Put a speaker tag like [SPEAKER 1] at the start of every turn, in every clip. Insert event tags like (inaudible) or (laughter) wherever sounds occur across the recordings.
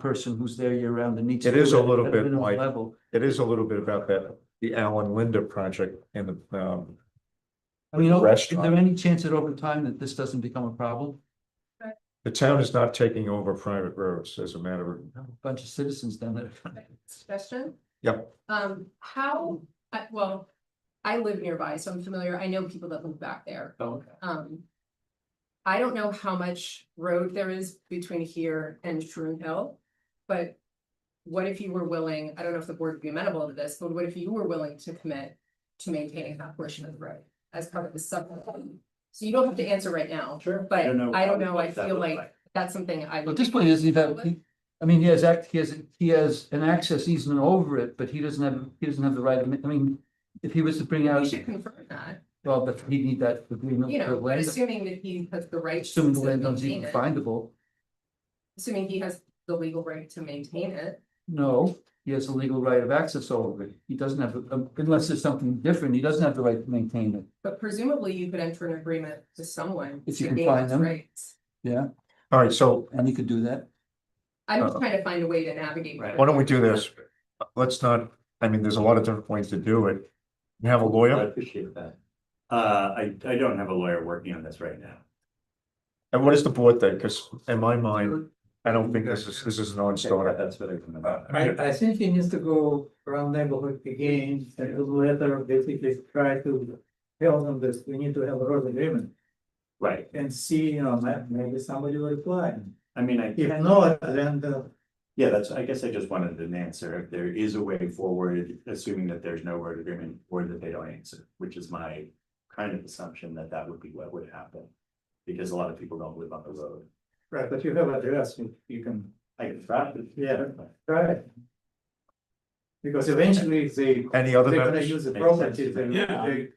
[SPEAKER 1] person who's there year round and needs.
[SPEAKER 2] It
[SPEAKER 1] to
[SPEAKER 2] is
[SPEAKER 1] do
[SPEAKER 2] a little
[SPEAKER 1] at
[SPEAKER 2] bit
[SPEAKER 1] minimum
[SPEAKER 2] like-
[SPEAKER 1] Level.
[SPEAKER 2] It is a little bit about that, the Alan Linda project and the, um,
[SPEAKER 1] I mean, is
[SPEAKER 2] Restaurant.
[SPEAKER 1] there any chance that over time that this doesn't become a problem?
[SPEAKER 2] the town is not taking over private roads as a matter of.
[SPEAKER 1] A Bunch of citizens down
[SPEAKER 3] (laughs)
[SPEAKER 1] there.
[SPEAKER 3] Question?
[SPEAKER 2] Yep.
[SPEAKER 3] Um, how, I- well, I live nearby, so I'm familiar, I know people that live back there, um. I don't know how much road there is between here and Shroom Hill, but. What if you were willing, I don't know if the board would be amenable to this, but what if you were willing to commit to maintaining that portion of the road as part of the sub? So you don't have to answer right now,
[SPEAKER 1] Sure.
[SPEAKER 3] but I don't know, I feel like that's something I.
[SPEAKER 1] At this point, he doesn't even have, he- I mean, he has act, he has, he has an access easement over it, but he doesn't have, he doesn't have the right, of I mean. If he was to bring
[SPEAKER 3] We
[SPEAKER 1] out,
[SPEAKER 3] should confirm that,
[SPEAKER 1] well, but he'd need that agreement
[SPEAKER 3] you
[SPEAKER 1] for
[SPEAKER 3] know, but
[SPEAKER 1] land,
[SPEAKER 3] assuming that he has the right.
[SPEAKER 1] assuming the
[SPEAKER 3] to
[SPEAKER 1] land is
[SPEAKER 3] maintain
[SPEAKER 1] even
[SPEAKER 3] it.
[SPEAKER 1] findable.
[SPEAKER 3] Assuming he has the legal right to maintain it,
[SPEAKER 1] No, he has a legal right of access over it. He doesn't have, um, unless there's something different, he doesn't have the right to maintain it.
[SPEAKER 3] but presumably you could enter an agreement to someone.
[SPEAKER 1] If you
[SPEAKER 3] to
[SPEAKER 1] can
[SPEAKER 3] gain
[SPEAKER 1] find
[SPEAKER 3] those
[SPEAKER 1] them.
[SPEAKER 3] rights.
[SPEAKER 1] Yeah,
[SPEAKER 2] All right, so
[SPEAKER 1] and he could do that.
[SPEAKER 3] I'm just
[SPEAKER 2] Uh-oh.
[SPEAKER 3] trying to find a way to navigate.
[SPEAKER 1] Oh. Right.
[SPEAKER 2] why don't we do this? Let's not, I mean, there's a lot of different ways to do it. You have a
[SPEAKER 4] I
[SPEAKER 2] lawyer,
[SPEAKER 4] appreciate that. Uh, I, I don't have a lawyer working on this right now.
[SPEAKER 2] and what is the board think? Because in my mind, I don't think this is, this is an on-starter.
[SPEAKER 4] That's what I can.
[SPEAKER 5] I, I think he needs to go around neighborhood again, and do letter, basically try to tell them this, we need to have a road agreement.
[SPEAKER 4] Right,
[SPEAKER 5] And see, you know, ma- maybe somebody will reply, uh,
[SPEAKER 4] I mean, I,
[SPEAKER 5] if not, then the,
[SPEAKER 4] yeah, that's, I guess I just wanted an answer, if there is a way forward, assuming that there's no word agreement, or that they don't answer, which is my kind of assumption that that would be what would happen. Because a lot of people don't live on the road.
[SPEAKER 5] right, but you have address, you, you can,
[SPEAKER 4] I can try.
[SPEAKER 5] Yeah. right? Because eventually they,
[SPEAKER 2] Any other
[SPEAKER 5] they're gonna
[SPEAKER 2] members?
[SPEAKER 5] use the
[SPEAKER 4] Makes
[SPEAKER 5] property,
[SPEAKER 4] sense.
[SPEAKER 5] they,
[SPEAKER 6] Yeah.
[SPEAKER 5] they,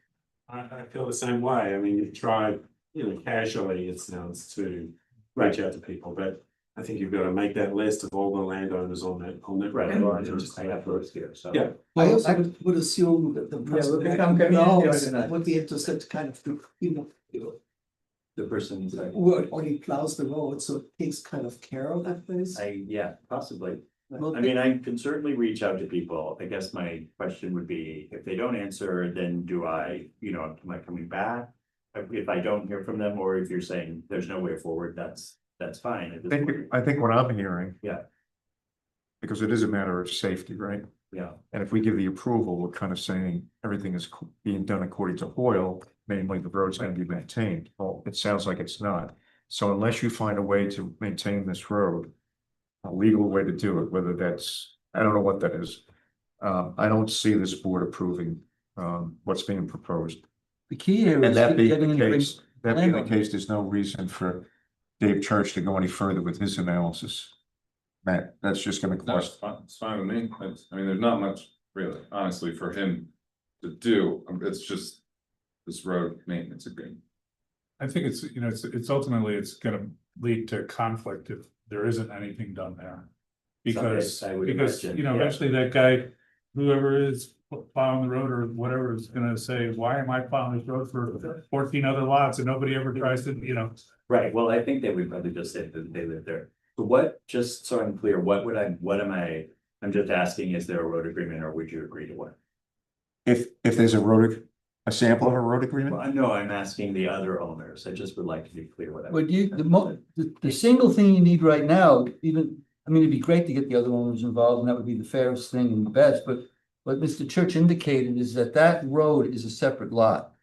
[SPEAKER 6] I, I feel the same way. I mean, you've tried, you know, casually, it sounds to reach out to people, but I think you've got to make that list of all the landowners on that, on that.
[SPEAKER 4] Right,
[SPEAKER 6] road.
[SPEAKER 4] I just, I have roads here, so.
[SPEAKER 6] Yeah.
[SPEAKER 7] I also would- would assume that the person
[SPEAKER 5] would
[SPEAKER 7] that
[SPEAKER 5] become community
[SPEAKER 7] knows
[SPEAKER 5] organized.
[SPEAKER 7] would be interested to kind of, do, you know, you know,
[SPEAKER 4] The person is like,
[SPEAKER 7] work or he plows the road, so it takes kind of care of that place.
[SPEAKER 4] I, yeah, possibly.
[SPEAKER 7] Well,
[SPEAKER 4] I mean, I can certainly reach out to people. I guess my question would be, if they don't answer, then do I, you know, am I coming back? If- If I don't hear from them, or if you're saying there's no way forward, that's, that's fine.
[SPEAKER 2] I
[SPEAKER 4] at this
[SPEAKER 2] think,
[SPEAKER 4] point.
[SPEAKER 2] I think what I'm hearing.
[SPEAKER 4] Yeah.
[SPEAKER 2] Because it is a matter of safety, right?
[SPEAKER 4] Yeah,
[SPEAKER 2] And if we give the approval, we're kind of saying everything is co- being done according to Hoyle, namely the road's gonna be maintained. Well, it sounds like it's not. So unless you find a way to maintain this road, a legal way to do it, whether that's, I don't know what that is. Um, I don't see this board approving, um, what's being proposed.
[SPEAKER 1] The key here
[SPEAKER 2] And
[SPEAKER 1] is
[SPEAKER 2] that being
[SPEAKER 1] getting
[SPEAKER 2] the
[SPEAKER 1] him to bring-
[SPEAKER 2] case, that being the
[SPEAKER 1] landowner.
[SPEAKER 2] case, there's no reason for Dave Church to go any further with his analysis. Matt, that's just gonna
[SPEAKER 8] No, it's
[SPEAKER 2] cost,
[SPEAKER 8] fine, it's fine with me, It's- I mean, there's not much really, honestly, for him to do, Um, it's just. This road maintenance agreement.
[SPEAKER 9] I think it's, you know, it's, it's ultimately, it's gonna lead to conflict if there isn't anything done there. Because,
[SPEAKER 4] I would
[SPEAKER 9] because,
[SPEAKER 4] imagine,
[SPEAKER 9] you know,
[SPEAKER 4] yeah.
[SPEAKER 9] eventually that guy, whoever is plowing the road or whatever is gonna say, why am I plowing this road for fourteen other lots and nobody ever tries to, you know?
[SPEAKER 4] right. Well, I think they would probably just say that they live there. But what, just so I'm clear, what would I, what am I, I'm just asking, is there a road agreement or would you agree to one?
[SPEAKER 2] if, if there's a road, a sample of a road agreement?
[SPEAKER 4] Well, I know I'm asking the other owners. I just would like to be clear what I.
[SPEAKER 1] But you, the mo, the, the single thing you need right now, even, I mean, it'd be great to get the other owners involved, and that would be the fairest thing and the best, but. What Mr. Church indicated is that that road is a separate lot.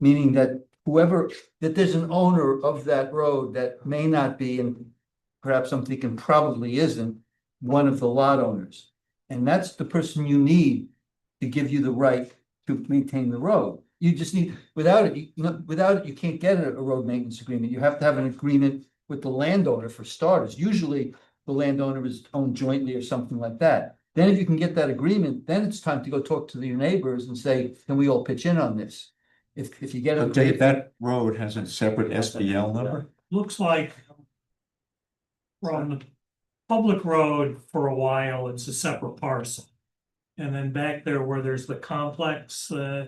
[SPEAKER 1] Meaning that whoever, that there's an owner of that road that may not be, and perhaps I'm thinking probably isn't. One of the lot owners, and that's the person you need to give you the right to maintain the road. You just need, without it, you, no- without it, you can't get a, a road maintenance agreement. You have to have an agreement with the landowner for starters. Usually, the landowner is owned jointly or something like that. Then if you can get that agreement, then it's time to go talk to your neighbors and say, can we all pitch in on this? If, if you get
[SPEAKER 2] But Dave,
[SPEAKER 1] a,
[SPEAKER 2] that road has a separate SBL number?
[SPEAKER 10] looks like from public road for a while, it's a separate parcel. And then back there where there's the complex, uh,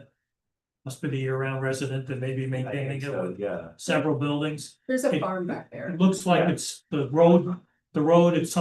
[SPEAKER 10] must be the year-round resident that may be
[SPEAKER 4] I think
[SPEAKER 10] maintaining it
[SPEAKER 4] so,
[SPEAKER 10] with
[SPEAKER 4] Yeah.
[SPEAKER 10] several buildings.
[SPEAKER 3] there's a
[SPEAKER 10] It-
[SPEAKER 3] farm back there.
[SPEAKER 10] It looks like
[SPEAKER 4] Yeah.
[SPEAKER 10] it's the road
[SPEAKER 11] the road at some